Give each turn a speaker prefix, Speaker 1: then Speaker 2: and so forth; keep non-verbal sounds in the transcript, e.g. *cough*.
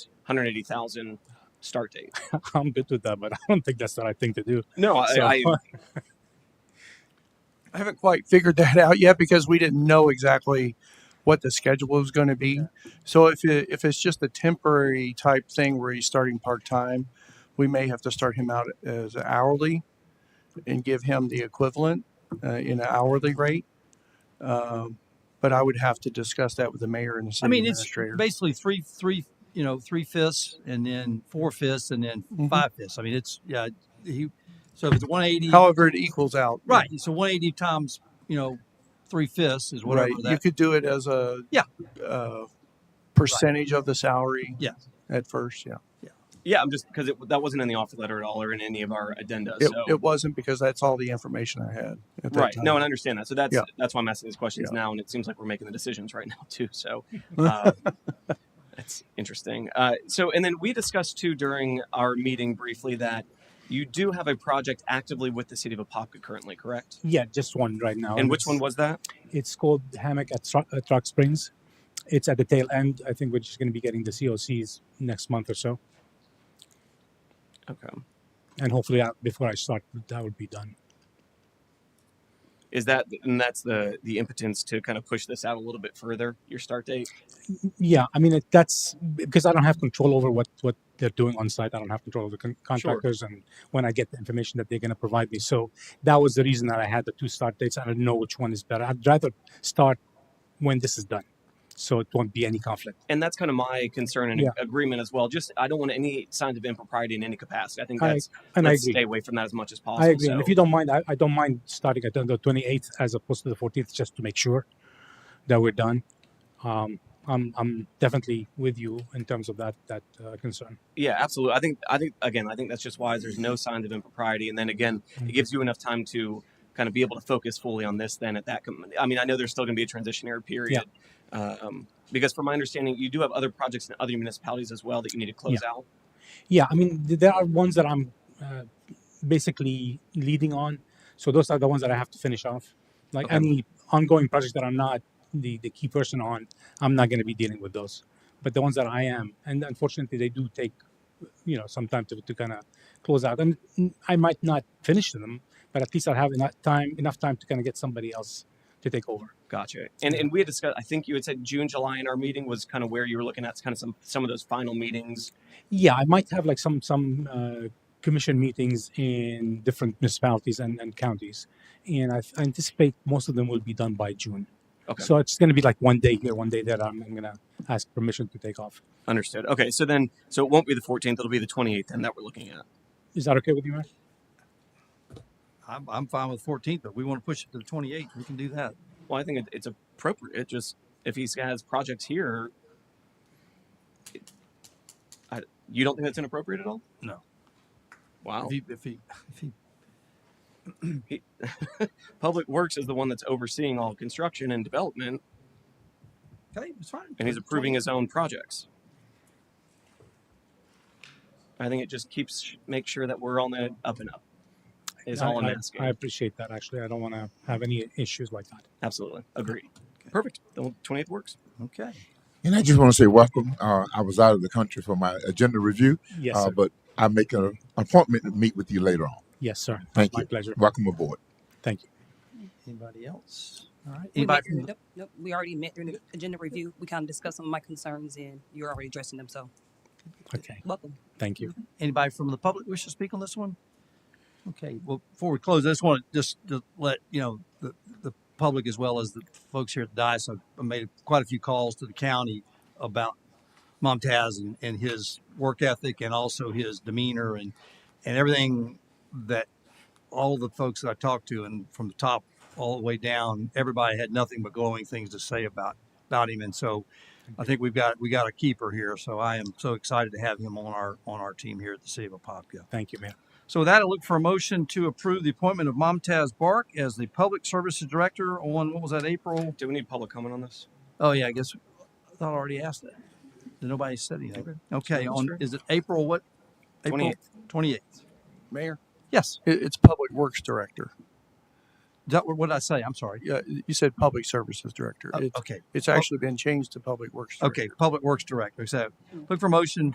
Speaker 1: hundred eighty thousand start date.
Speaker 2: I'm good with that, but *laughs* I don't think that's the right thing to do.
Speaker 1: No,
Speaker 3: *laughs*
Speaker 1: I,
Speaker 2: So
Speaker 1: I
Speaker 3: I haven't quite figured that out yet because we didn't know exactly what the schedule was going to be. So if it, if it's just a temporary type thing where he's starting part time, we may have to start him out as hourly and give him the equivalent uh, in an hourly rate. Um, but I would have to discuss that with the mayor and the
Speaker 4: I
Speaker 3: city
Speaker 4: mean, it's
Speaker 3: administrator.
Speaker 4: basically three, three, you know, three fifths and then four fifths and then
Speaker 3: Mhm.
Speaker 4: five fifths. I mean, it's, yeah, he, so if it's 180,
Speaker 3: However, it equals out.
Speaker 4: right. So 180 times, you know, three fifths is whatever
Speaker 3: Right. You
Speaker 4: that,
Speaker 3: could do it as a
Speaker 4: Yeah.
Speaker 3: uh, percentage of the salary.
Speaker 4: Yeah.
Speaker 3: At first, yeah.
Speaker 1: yeah, I'm just because that wasn't in the offer letter at all or in any of our addenda.
Speaker 3: It,
Speaker 1: so
Speaker 3: it wasn't because that's all the information I had at that
Speaker 1: right,
Speaker 3: time.
Speaker 1: no, and I understand that. So that's
Speaker 3: Yeah.
Speaker 1: that's why I'm asking these questions now, and it seems like we're making the decisions right now too.
Speaker 3: *laughs*
Speaker 1: So. Uh, That's interesting. Uh, so, and then we discussed too during our meeting briefly that you do have a project actively with the city of Apopka currently, correct?
Speaker 2: *laughs* Yeah, just one right
Speaker 3: Oh,
Speaker 2: now.
Speaker 1: And which
Speaker 2: it's-
Speaker 1: one was that?
Speaker 2: It's called Hammock at, Tru- at Rock Springs. It's at the tail end. I think we're just going to be getting the COCs next month or so,
Speaker 1: Okay.
Speaker 2: and hopefully uh, before I start, that will be done.
Speaker 1: Is that and that's the the impotence to kind of push this out a little bit further? Your start date.
Speaker 2: Yeah, I mean it, that's because I don't have control over what what they're doing on site. I don't have control over the con- contractors and when I get the information that they're going to provide me. So that was the reason that I had the two start dates. I don't know which one is better. I'd rather start when this is done, so it won't be any conflict.
Speaker 1: and that's kind of my concern and
Speaker 2: Yeah.
Speaker 1: agreement as well. Just I don't want any signs of impropriety in any capacity. I think
Speaker 2: I-
Speaker 1: that's
Speaker 2: And I
Speaker 1: let's
Speaker 2: agree.
Speaker 1: stay away from that as much as possible.
Speaker 2: I agree.
Speaker 1: So,
Speaker 2: And if you don't mind, I, I don't mind starting at the 28th as opposed to the 14th, just to make sure that we're done. Um, I'm I'm definitely with you in terms of that that uh, concern.
Speaker 1: yeah, absolutely. I think I think again, I think that's just wise. There's no signs of impropriety, and then again, it
Speaker 2: Mhm.
Speaker 1: gives you enough time to kind of be able to focus fully on this. Then at that, com- I mean, I know there's still going to be a transitionary period. Um, because from my understanding, you do have other projects in other municipalities as well that you need to close out.
Speaker 2: Yeah, I mean th- there are ones that I'm uh, basically leading on, so those are the ones that I have to finish off. Like
Speaker 1: Okay.
Speaker 2: any ongoing projects that I'm not the the key person on, I'm not going to be dealing with those. But the ones that I am, and unfortunately, they do take you know some time to, to kind of close out and mm, i might not finish them but at least i'll have enough time enough time to kind of get somebody else to take over
Speaker 1: Gotcha. And
Speaker 2: Yeah.
Speaker 1: and we had discussed. I think you had said June, July in our meeting was kind of where you were looking at kind of some some of those final meetings.
Speaker 2: yeah i might have like some some uh, commission meetings in different municipalities and, and counties and I, f- I anticipate most of them will be done by june
Speaker 1: Okay.
Speaker 2: so it's going to be like one day here one day there i'm, I'm going to ask permission to take off
Speaker 1: Understood. Okay, so then, so it won't be the 14th; it'll be the 28th, then that we're looking at.
Speaker 2: is that okay with you Mayor?
Speaker 4: I'm, I'm fine with 14th, but we want to push it to the 28th. We can do that.
Speaker 1: Well, I think it, it's appropriate. It just if he has projects here, it- I, you don't think that's inappropriate at all?
Speaker 4: No.
Speaker 3: Oh.
Speaker 1: Wow.
Speaker 4: If he, if he, if he,
Speaker 1: Public Works is the one that's overseeing all construction and development,
Speaker 4: okay, it's fine.
Speaker 1: and he's approving his own projects. I think it just keeps make sure that we're on the up and up. Is
Speaker 2: I,
Speaker 1: all I'm
Speaker 2: I,
Speaker 1: asking.
Speaker 2: I appreciate that actually i don't want to have any issues like that
Speaker 1: Absolutely agreed. Perfect. The 28th works.
Speaker 4: Okay.
Speaker 5: And I just want to say welcome. Uh, I was out of the country for my agenda review,
Speaker 2: yes
Speaker 5: uh,
Speaker 2: sir.
Speaker 5: but I make an appointment to meet with you later on.
Speaker 2: yes sir
Speaker 5: Thank
Speaker 2: my
Speaker 5: you.
Speaker 2: pleasure
Speaker 5: Welcome aboard.
Speaker 2: thank you
Speaker 4: Anybody else? All right.
Speaker 6: We met
Speaker 4: Anybody?
Speaker 6: through, nope, nope, we already met during the agenda review. We kind of discussed some of my concerns and you're already addressing them, so
Speaker 2: okay
Speaker 6: welcome.
Speaker 2: thank you
Speaker 4: Anybody from the public wish to speak on this one? Okay, well, before we close, I just want to just to let you know the, the public as well as the folks here at the dais. I've- I made quite a few calls to the county about Montaz and, and his work ethic and also his demeanor and and everything that all the folks that I talked to and from the top all the way down, everybody had nothing but glowing things to say about about him. And so I think we've got we got a keeper here. So I am so excited to have him on our on our team here at the City of Apopka.
Speaker 2: thank you man
Speaker 4: So with that, I look for a motion to approve the appointment of Momtaz Bark as the Public Services Director on what was that April?
Speaker 1: Do we need public comment on this?
Speaker 4: Oh yeah, I guess I thought I already asked that. Did Nobody said anything. Okay, on is it April what? April
Speaker 1: 28th.
Speaker 4: twenty eighth.
Speaker 3: Mayor,
Speaker 4: Yes,
Speaker 3: it, it's Public Works Director.
Speaker 4: Is that what what did I say? I'm sorry.
Speaker 3: Yeah, you said Public Services Director.
Speaker 4: Oh,
Speaker 3: It's,
Speaker 4: okay,
Speaker 3: it's actually been changed to Public Works. Director.
Speaker 4: okay. Public Works Director. So look for a motion